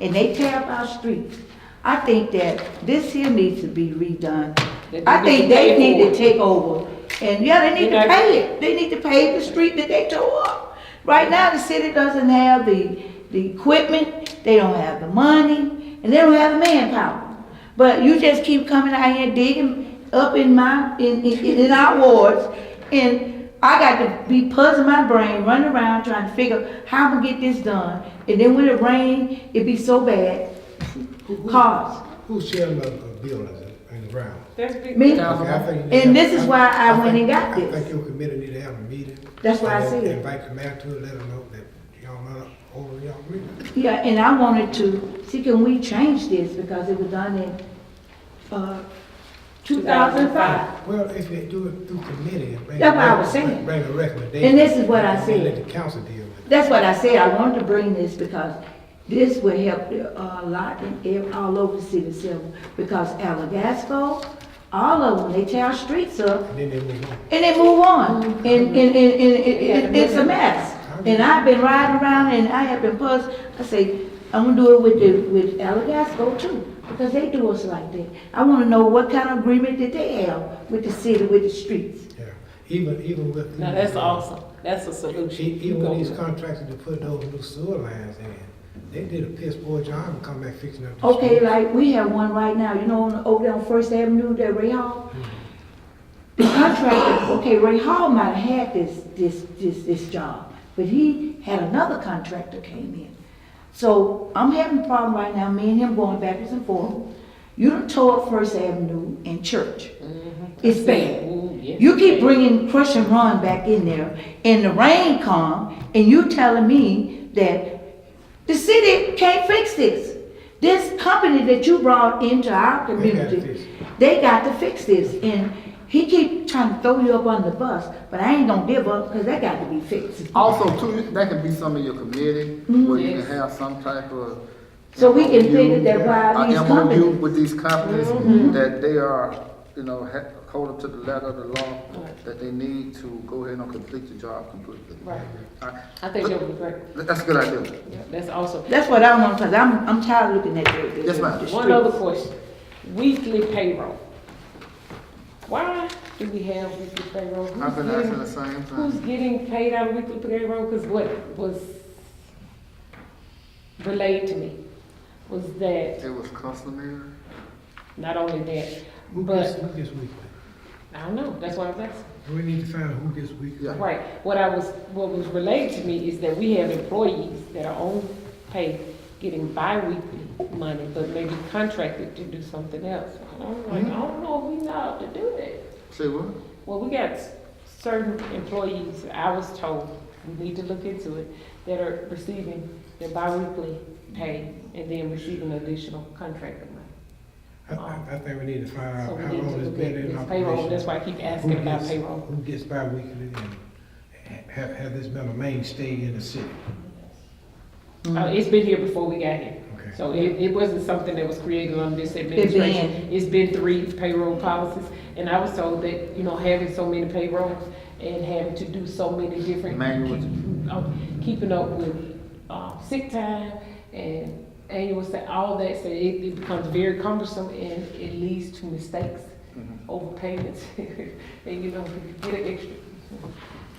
and they tear up our streets. I think that this here needs to be redone. They I need think to they pay need to for it. take over. And yeah, they need They're to not- pay it. They need to pave the street that they tore up. Right now, the city doesn't have the, the equipment, they don't have the money, and they don't have the manpower. But you just keep coming out here digging up in my, in, in, in our wards, and I got to be puzzling my brain, running around trying to figure how I'm gonna get this done. And then when it rain, it be so bad, cars. Who's chairman of the buildings and the ground? That's big. Me? Okay, I think you need And to- this is why I went and think- got I this. think your committee need to have a meeting. That's why I and said it. Invite the mayor to it, let them know that y'all not over y'all agreement. Yeah, and I wanted to, see, can we change this, because it was done in, uh, two thousand five. Well, if they do it through committee. and bring- That's what I was saying. Bring a recommendation. And this is what I then said. Let the council deal with it. That's what I said, I wanted to bring this because this will help uh, a lot in, ev- all over the city of Silver, because Alagasco, all of them, they tear our streets up, And then they move on. and they move on, and, and, and, and it- it- it's a mess. And I've been riding around and I have been puzzled, I say, I'm gonna do it with the, with Alagasco too, because they do us like that. I wanna know what kind of agreement did they have with the city, with the streets. Yeah, even, even with. Now, that's awesome. That's a solution. E- You Even go when these with it. contractors to put those new sewer lines in, they did a piss poor job and come back fixing up. the Okay, street. like, we have one right now, you know, on- over there on First Avenue, that Ray Hall. The contractor, okay, Ray Hall might have had this, this, this, this job, but he had another contractor came in. So I'm having a problem right now, me and him going backwards and forth. You done tore up First Avenue and Church. It's bad. Ooh, yeah. You keep bringing crush and run back in there, and the rain come, and you telling me that the city can't fix this. This company that you brought into our fix it. community, they got to fix this, and he keep trying to throw you up on the bus, but I ain't gonna give up, cause that got to be fixed. Also too, that can be some of your committee, where you can have some type of. Mm-hmm. So we can figure that A why these MOU companies, Mm-hmm. with these companies, that they are, you know, ha- hold up to the letter of the law, that they need to go ahead and complete the job completely. Right. I- I think that would be great. That's a good idea. Yeah, That's awesome. that's what I want, cause I'm, I'm tired of looking at the. the- Yes, ma'am. the One streets. other question. Weekly payroll. Why do we have weekly payroll? Who's I've been asking getting- the same thing. Who's getting paid out of weekly payroll? Because what was relayed to me was that, It was customary. not only that, Who gets, but, who gets weekly? I don't know, that's why I was asking. We need to find out who gets weekly. Yeah. Right, what I was, what was relayed to me is that we have employees that are on pay, getting bi-weekly money, but maybe contracted to do something else. And I'm like, Mm-hmm. I don't know if we know how to do that. Say what? Well, we got certain employees, I was told, we need to look into it, that are receiving their bi-weekly pay and then receiving additional contracted money. I, I, I think we need to find So out we how need to long it's look been at in this operation. payroll, that's why I keep Who asking about gets- payroll. Who gets bi-weekly and ha- have, have this been a mainstay in the city? Mm-hmm. Uh, it's been here before we got here. Okay. So it, it wasn't something that was created under this administration. It's been three payroll policies, and I was told that, you know, having so many payrolls and having to do so many different. Manual. um, Keeping up with, uh, sick time and annual, sa- all that, so it, it becomes very cumbersome and it leads to mistakes, Mm-hmm. overpayments, and you know, you get an extra.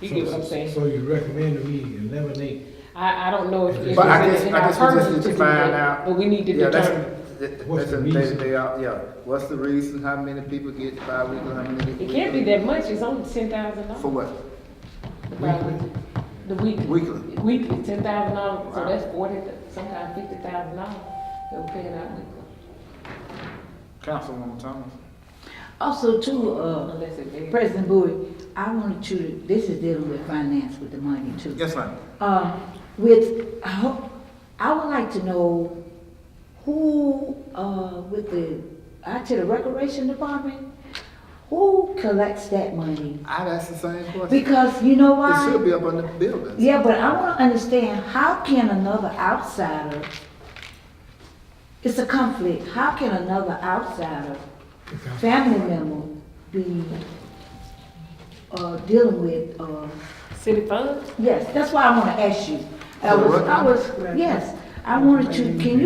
You get what I'm So- saying? So you recommend that we eliminate, I, I don't know if. if But I it's guess, in I our guess we just purview need to do that, find out. But we need to Yeah, that's- determine. that- that's What's the in- they- reason? they are- Yeah, what's the reason, how many people get bi-weekly, how many? It can't be that much, it's only ten thousand For dollars. what? The weekly. Weekly. Weekly, ten thousand dollars, so Wow. that's forty, sometimes fifty thousand dollars that we're paying out weekly, Councilwoman Thomas. Also too, uh, unless it varies. President Bowie, I wanted you to, this is dealing with finance with the money too. Yes, ma'am. Uh, with, I hope- I would like to know who, uh, with the, I to the recreation department, who collects that money? I'd ask the same question. Because you know It should why? be up on the building. Yeah, but I wanna understand, how can another outsider, it's a conflict, how can another outsider, because family member, be, uh, dealing with, uh, City funds? Yes, that's why I want to ask you. I For was, what? I was, yes, I wanted to, can you